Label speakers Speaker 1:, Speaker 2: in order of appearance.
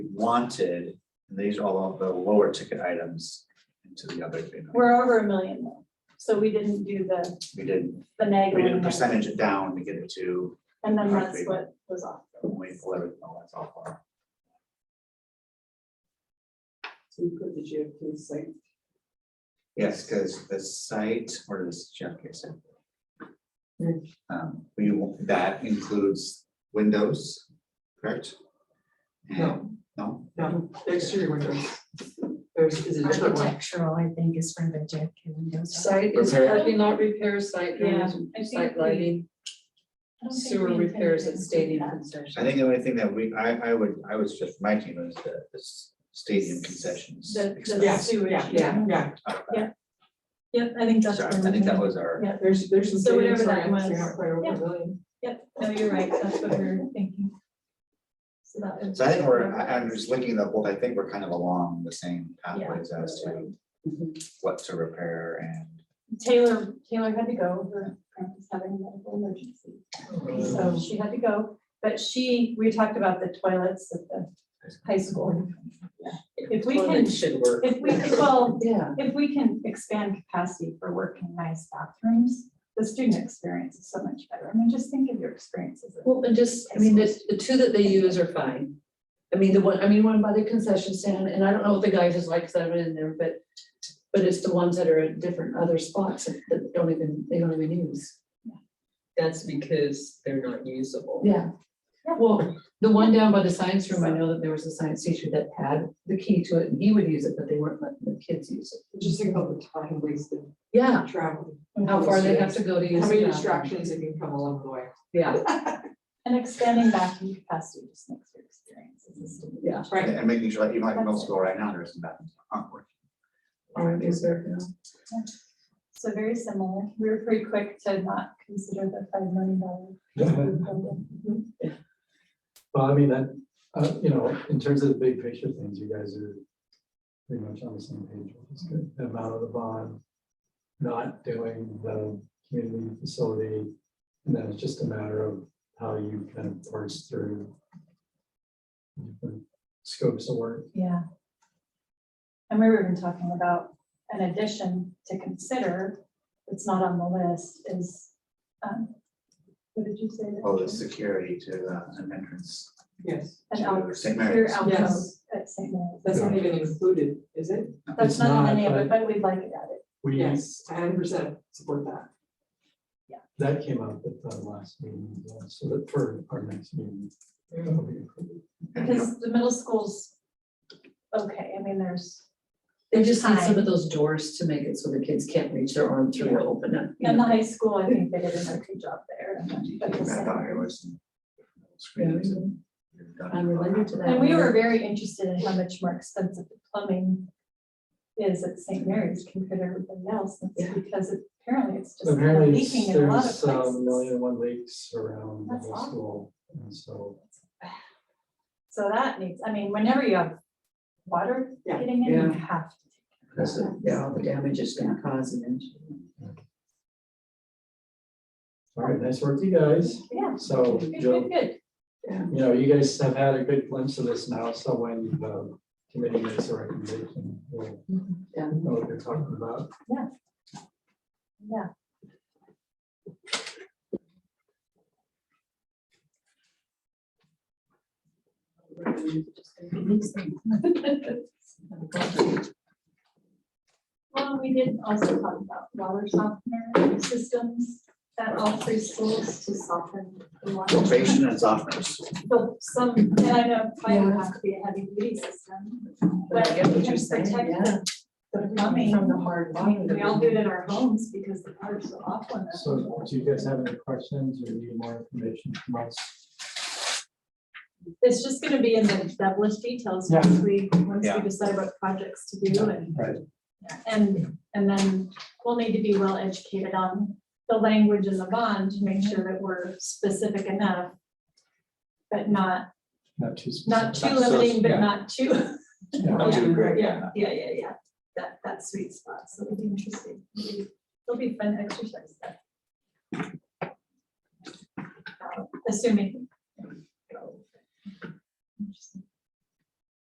Speaker 1: wanted, and these are all of the lower ticket items into the other, you know,
Speaker 2: We're over a million though, so we didn't do the,
Speaker 1: we didn't,
Speaker 2: the
Speaker 1: we didn't
Speaker 2: nagging.
Speaker 1: percentage it down to get it to
Speaker 2: And then that's what was off.
Speaker 1: only eleven, no, that's all far.
Speaker 3: So you put the GFK site,
Speaker 1: Yes, because the site, or this Jeff case.
Speaker 3: Hmm.
Speaker 1: Um, we, want- that includes windows, correct?
Speaker 3: No.
Speaker 1: And- No,
Speaker 3: no, exterior windows. There's, is a different one.
Speaker 4: Architectural, I think, is from the Jack windows.
Speaker 3: Site is
Speaker 1: Repair.
Speaker 3: parking lot repair, site
Speaker 2: Yeah,
Speaker 3: drainage,
Speaker 2: I think
Speaker 3: site
Speaker 2: we-
Speaker 3: lighting, sewer repairs at stadium
Speaker 1: I
Speaker 3: concession.
Speaker 1: think the only thing that we, I, I would, I was just, my team is the, the s- stadium concessions.
Speaker 2: The, the
Speaker 1: expense.
Speaker 2: sewage.
Speaker 3: Yeah, yeah,
Speaker 2: yeah. Yep, I think that's.
Speaker 1: Sorry,
Speaker 2: what
Speaker 1: I think that
Speaker 2: we're-
Speaker 1: was our,
Speaker 2: Yeah,
Speaker 3: there's, there's some
Speaker 2: So whatever
Speaker 3: stadiums
Speaker 2: that was.
Speaker 3: around, so you're not quite over
Speaker 2: Yeah.
Speaker 3: a million.
Speaker 2: yep, no, you're right, that's what we we're thinking. So that is.
Speaker 1: so I think we're, I, I'm just looking at the both, I think we're kind of along the same pathways as to what to repair and.
Speaker 2: Taylor, Taylor had to go, her friend was having a medical emergency, so she had to go, but she, we talked about the toilets at the high school. If we can,
Speaker 3: should work.
Speaker 2: if we, well,
Speaker 3: Yeah,
Speaker 2: if we can expand capacity for work in nice bathrooms, the student experience is so much better. I mean, just think of your experiences.
Speaker 5: Well, and just, I mean, the, the two that they use are fine. I mean, the one, I mean, one by the concession stand, and I don't know what the guys is like, because I haven't been in there, but, but it's the ones that are at different other spots that- that don't even, they don't even use.
Speaker 6: That's because they're not usable.
Speaker 5: Yeah. Well, the one down by the science room, I know that there was a science teacher that had the key to it, and he would use it, but they weren't letting the kids use it.
Speaker 3: just think about the time wasted
Speaker 5: Yeah,
Speaker 3: traveling,
Speaker 5: how far they have to go to use it.
Speaker 3: how many distractions that can come along the way.
Speaker 5: Yeah,
Speaker 2: And expanding bathroom capacity just makes your experience as a student.
Speaker 5: yeah.
Speaker 3: Right.
Speaker 1: And making sure, like, even like middle school right now, there's some bathrooms that aren't working.
Speaker 5: Or is there, you know?
Speaker 2: So very similar. We were pretty quick to not consider the five million dollar.
Speaker 7: Well,
Speaker 2: program.
Speaker 7: I mean, that, uh, you know, in terms of the big picture things, you guys are pretty much on the same page, which is good. The amount of the bond, not doing the community facility. And then it's just a matter of how you kind of parse through different scopes of work.
Speaker 2: Yeah. And we were even talking about an addition to consider, that's not on the list, is, um, what did you say? that-
Speaker 1: Oh, the security to the an entrance.
Speaker 3: Yes,
Speaker 2: An
Speaker 1: to
Speaker 2: out,
Speaker 1: St.
Speaker 2: your
Speaker 1: Mary's.
Speaker 2: alcove
Speaker 3: Yes.
Speaker 2: at St. Mary's.
Speaker 3: that's not even included, is it?
Speaker 2: That's
Speaker 7: It's
Speaker 2: not on the
Speaker 7: not,
Speaker 2: neighborhood, but we'd like it added.
Speaker 7: We,
Speaker 3: Yes, I hundred percent support that.
Speaker 7: that came up at the last meeting, uh, so that for our next meeting. that'll be included.
Speaker 2: Because the middle school's, okay, I mean, there's,
Speaker 5: They just need some
Speaker 2: Time.
Speaker 5: of those doors to make it so the kids can't reach their arm through or open it. you
Speaker 2: and the
Speaker 5: know.
Speaker 2: high school, I think they did an okay job there.
Speaker 1: DT back on here with some screens
Speaker 5: Yeah.
Speaker 1: and you're done.
Speaker 5: Unrelated to that.
Speaker 2: And we were very interested in how much more expensive the plumbing is at St. Mary's compared to everybody else, that's
Speaker 5: Yeah.
Speaker 2: because apparently it's just kind of
Speaker 7: Apparently,
Speaker 2: leaking
Speaker 7: it's-
Speaker 2: in a lot
Speaker 7: there's
Speaker 2: of
Speaker 7: a million
Speaker 2: places.
Speaker 7: and one leaks around the
Speaker 2: That's
Speaker 7: whole
Speaker 2: awful.
Speaker 7: school, and so.
Speaker 2: So that needs, I mean, whenever you have water
Speaker 3: Yeah.
Speaker 2: getting in, you
Speaker 5: Yeah.
Speaker 2: have to.
Speaker 5: Because of, yeah, all the damage it's gonna cause eventually.
Speaker 7: All right, nice work, you guys.
Speaker 2: Yeah,
Speaker 7: So,
Speaker 2: good,
Speaker 7: Jill,
Speaker 2: good, good.
Speaker 7: you know, you guys have had a good glimpse of this now, so when the committee makes a recommendation, we'll
Speaker 5: Yeah.
Speaker 7: know what they're talking about.
Speaker 2: Yeah, well, we did also talk about water softener systems at all three schools to soften the water.
Speaker 1: Filtration and softeners.
Speaker 2: But some, and I know it probably would have to be a heavy duty system, but
Speaker 5: I
Speaker 2: it
Speaker 5: get what
Speaker 2: can
Speaker 5: you're saying,
Speaker 2: protect the, the plumbing.
Speaker 5: From the hard
Speaker 2: I mean,
Speaker 5: bottom.
Speaker 2: we all do it in our homes because the water's so awful in
Speaker 7: So do you guys have any questions or need more information from us?
Speaker 2: It's just gonna be in the devilish details
Speaker 7: Yeah.
Speaker 2: once we, once
Speaker 1: Yeah.
Speaker 2: we decide what projects to do and.
Speaker 7: Right.
Speaker 2: And, and then we'll need to be well educated on the language in the bond to make sure that we're specific enough. But not,
Speaker 7: Not too specific.
Speaker 2: not too
Speaker 1: Not so-
Speaker 2: limiting, but
Speaker 1: yeah.
Speaker 2: not too,
Speaker 7: Yeah.
Speaker 1: Not too great.
Speaker 2: yeah, yeah, yeah, yeah, that, that sweet spot, so it'll be interesting. It'll be- It'll be fun exercise that. Assuming. Interesting.